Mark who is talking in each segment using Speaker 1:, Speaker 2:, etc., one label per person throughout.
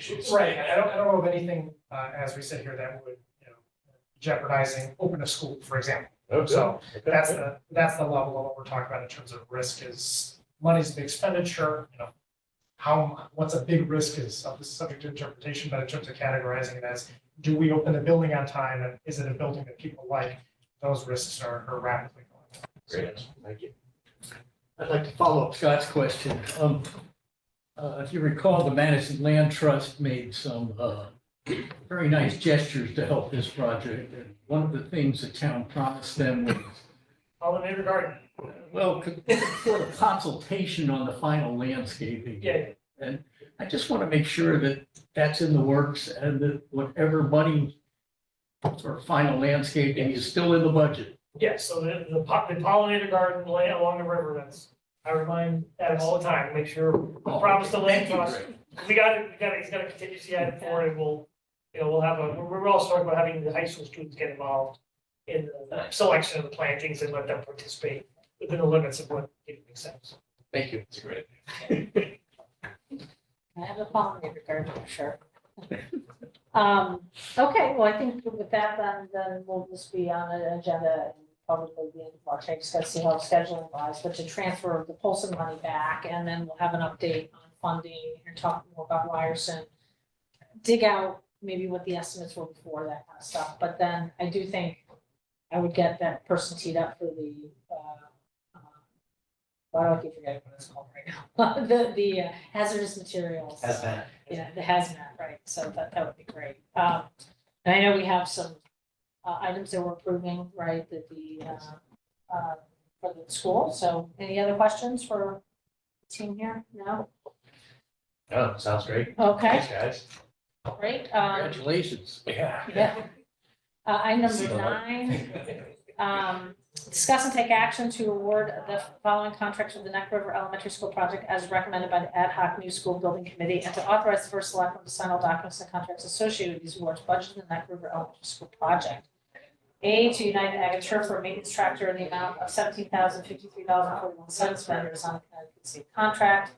Speaker 1: issues.
Speaker 2: Right, I don't, I don't know of anything, uh, as we sit here that would, you know, jeopardizing open a school, for example.
Speaker 1: Oh, good.
Speaker 2: So
Speaker 1: Okay.
Speaker 2: that's the, that's the level of what we're talking about in terms of risk is money's the expenditure, you know. How, what's a big risk is, uh, this is subject to interpretation, but in terms of categorizing it as, do we open the building on time and is it a building that people like? Those risks are are rapidly going up.
Speaker 1: Great, thank you.
Speaker 3: I'd like to follow up Scott's question. Um, uh, If you recall, the Madison Land Trust made some uh, very nice gestures to help this project. And One of the things the town promised them was,
Speaker 2: Oh, the neighbor garden,
Speaker 3: well, sort of consultation on the final landscaping.
Speaker 2: yeah,
Speaker 3: I just want to make sure that that's in the works and that whatever money for final landscaping is still in the budget.
Speaker 4: Yeah, so the, the po- the pollinator garden lay along the river, that's, I remind that all the time, make sure, we promise the land
Speaker 3: Oh, Thank you,
Speaker 4: trust.
Speaker 3: Greg.
Speaker 4: We got it, we got it, he's got a contingency item for it, and we'll, you know, we'll have a, we we're all talking about having the high school students get involved in the selection of the plantings and let them participate within the limits of what it makes sense.
Speaker 3: Thank you.
Speaker 1: It's a great.
Speaker 5: I have a pollinator garden, for sure. Um, okay, well, I think with that, then, then we'll just be on an agenda and probably the end of March, I just gotta see how scheduling lies, but to transfer the Polson money back, and then we'll have an update on funding and talk more about Ryerson. Dig out maybe what the estimates were before, that kind of stuff, but then I do think I would get that person teed up for the, uh, um, why do I keep forgetting what it's called right now? The, the uh, hazardous materials.
Speaker 6: As that.
Speaker 5: Yeah, the hazmat, right, so that, that would be great. Um, and I know we have some, uh, items that we're approving, right, that the, uh, uh, for the school, so any other questions for the team here? No?
Speaker 6: Oh, sounds great.
Speaker 5: Okay,
Speaker 6: Thanks, guys.
Speaker 5: great, um,
Speaker 3: Congratulations.
Speaker 6: Yeah.
Speaker 5: yeah. Uh, item
Speaker 6: See
Speaker 5: number
Speaker 6: you later.
Speaker 5: nine, Um, discuss and take action to award the following contracts with the Neck River Elementary School project as recommended by the ad hoc new school building committee and to authorize the first selectman to sign all documents and contracts associated with these awards budgeted in the Neck River Elementary School project. A to United Agaturf for a maintenance tractor in the amount of seventeen thousand fifty-three dollars and forty-one cents vendors on the Connecticut State contract.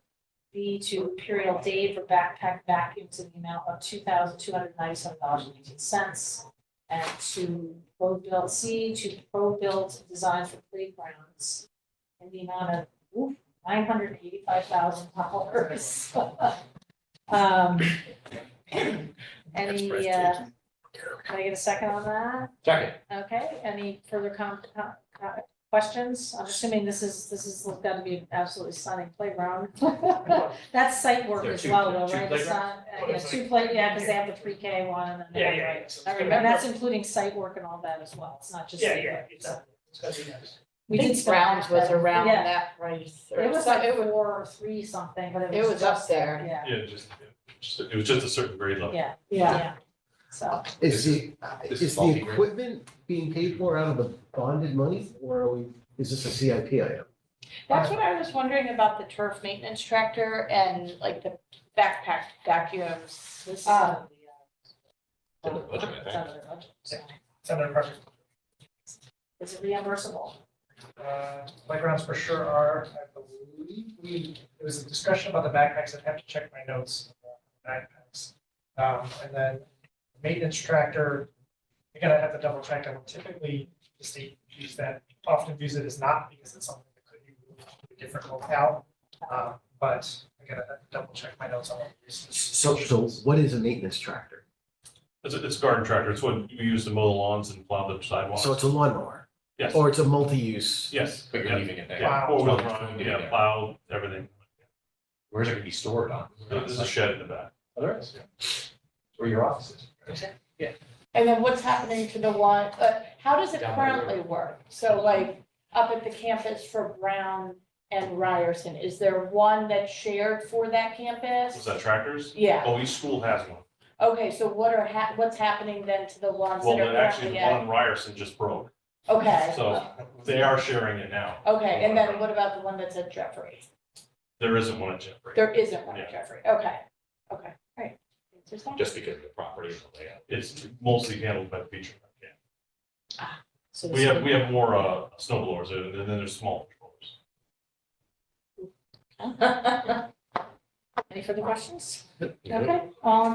Speaker 5: B to Imperial Dave for backpack vacuums in the amount of two thousand two hundred ninety-seven dollars and eighteen cents and to ProBuild, C, to ProBuild Design for Playgrounds in the amount of, oof, nine hundred eighty-five thousand dollars. Um, any, uh, can I get a second on that?
Speaker 6: Second.
Speaker 5: Okay, any further com, com- com- questions? I'm assuming this is, this is got to be an absolutely stunning playground. That's site work
Speaker 6: There are
Speaker 5: as
Speaker 6: two-
Speaker 5: well, though,
Speaker 6: two
Speaker 5: right? It's not, uh, yeah,
Speaker 4: What is
Speaker 5: two play, yeah, because they have the pre-K one and then.
Speaker 4: Yeah,
Speaker 5: the-
Speaker 4: yeah, yeah. so it's
Speaker 5: All right,
Speaker 4: gonna
Speaker 5: and that's
Speaker 4: be-
Speaker 5: including site work and all that as well, it's not just.
Speaker 4: Yeah,
Speaker 5: site
Speaker 4: yeah,
Speaker 5: work,
Speaker 4: it's,
Speaker 5: so.
Speaker 4: it's gonna be nice.
Speaker 5: We
Speaker 7: I
Speaker 5: did
Speaker 7: think Browns was around
Speaker 5: Yeah.
Speaker 7: that price. or
Speaker 5: It was
Speaker 7: so-
Speaker 5: like
Speaker 7: it wa-
Speaker 5: four or three something, but it was.
Speaker 7: It was up there.
Speaker 5: Yeah,
Speaker 8: Yeah, just, just- it was just a certain grade level.
Speaker 5: yeah,
Speaker 7: Yeah,
Speaker 5: yeah, so,
Speaker 1: This
Speaker 9: Is the, uh,
Speaker 1: this is
Speaker 9: is the
Speaker 1: faulty, right?
Speaker 9: equipment being paid for out of the bonded money or are we, is this a CIP item?
Speaker 7: that's what I was wondering about the turf maintenance tractor and like the backpack vacuums.
Speaker 5: this is.
Speaker 7: Um,
Speaker 5: under the, uh,
Speaker 1: Under the budget, I think.
Speaker 5: it's under the budget, so.
Speaker 2: it's under pressure.
Speaker 5: Is it reimbursable?
Speaker 2: Uh, playgrounds for sure are, I believe, we, there was a discussion about the backpacks, I'd have to check my notes. on Backpacks. Um, and then maintenance tractor, you gotta have the double check, I typically, the state use that, often views it as not, because it's something that could be moved to a different locale. Um, but I gotta double check my notes on what it is.
Speaker 9: So, so what is a maintenance tractor?
Speaker 8: It's, it's a garden tractor. It's what you use to mow the lawns and plow the sidewalks.
Speaker 9: So it's a lawnmower?
Speaker 8: Yes.
Speaker 9: Or it's a multi-use?
Speaker 8: Yes.
Speaker 6: But you're leaving it there.
Speaker 2: Wow.
Speaker 8: Four wheel drive, yeah, plow, everything.
Speaker 6: Where's it gonna be stored on?
Speaker 8: There's a shed in the back.
Speaker 6: Oh, there is, yeah. Where your office is.
Speaker 7: And then what's happening to the one, uh, how does it
Speaker 6: Down the road.
Speaker 7: currently work? So like up at the campus for Brown and Ryerson, is there one that's shared for that
Speaker 8: Was
Speaker 7: campus?
Speaker 8: that tractors?
Speaker 7: Yeah,
Speaker 8: Oh, each school has one.
Speaker 7: okay, so what are, hap- what's happening then to the ones
Speaker 8: Well,
Speaker 7: that are
Speaker 8: but actually,
Speaker 7: currently
Speaker 8: the
Speaker 7: at?
Speaker 8: one in Ryerson just broke.
Speaker 7: Okay.
Speaker 8: So they are sharing it now.
Speaker 7: Okay, and then what about the one that's at Jeffrey?
Speaker 8: There isn't one at Jeffrey.
Speaker 7: There isn't one
Speaker 8: Yeah.
Speaker 7: at Jeffrey, okay, okay, great. Interesting.
Speaker 6: Just because of the property and the layout.
Speaker 8: It's mostly handled by the beach. yeah.
Speaker 5: So
Speaker 8: We have, we have more, uh, snow blowers and then there's small blowers.
Speaker 5: Any further questions? Okay, all in